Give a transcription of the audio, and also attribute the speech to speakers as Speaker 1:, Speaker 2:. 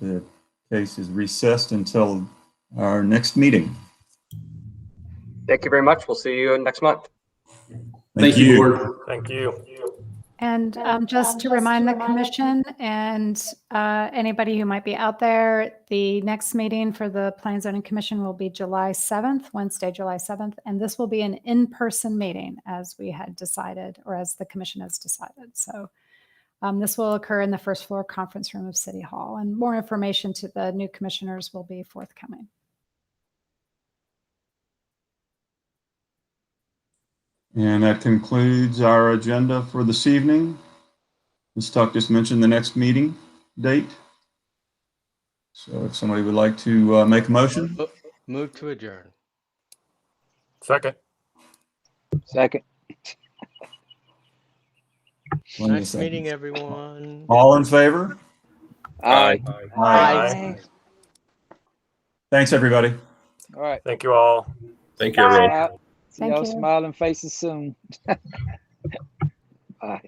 Speaker 1: The case is recessed until our next meeting.
Speaker 2: Thank you very much. We'll see you next month.
Speaker 3: Thank you, board.
Speaker 4: Thank you.
Speaker 5: And um, just to remind the commission and uh, anybody who might be out there, the next meeting for the Plan Zoning Commission will be July 7th, Wednesday, July 7th. And this will be an in-person meeting as we had decided, or as the commission has decided. So um, this will occur in the first floor conference room of City Hall. And more information to the new commissioners will be forthcoming.
Speaker 1: And that concludes our agenda for this evening. Ms. Tuck just mentioned the next meeting date. So if somebody would like to uh, make a motion,
Speaker 6: Mo- Move to adjourn.
Speaker 4: Second.
Speaker 7: Second.
Speaker 1: One
Speaker 6: Nice
Speaker 1: second.
Speaker 6: meeting everyone.
Speaker 1: all in favor?
Speaker 7: Aye.
Speaker 4: Aye.
Speaker 1: Thanks, everybody.
Speaker 7: All right.
Speaker 4: Thank you all.
Speaker 3: Thank you, everyone.
Speaker 7: Out. See
Speaker 5: Thank
Speaker 7: y'all
Speaker 5: you.
Speaker 7: smiling faces soon. Bye.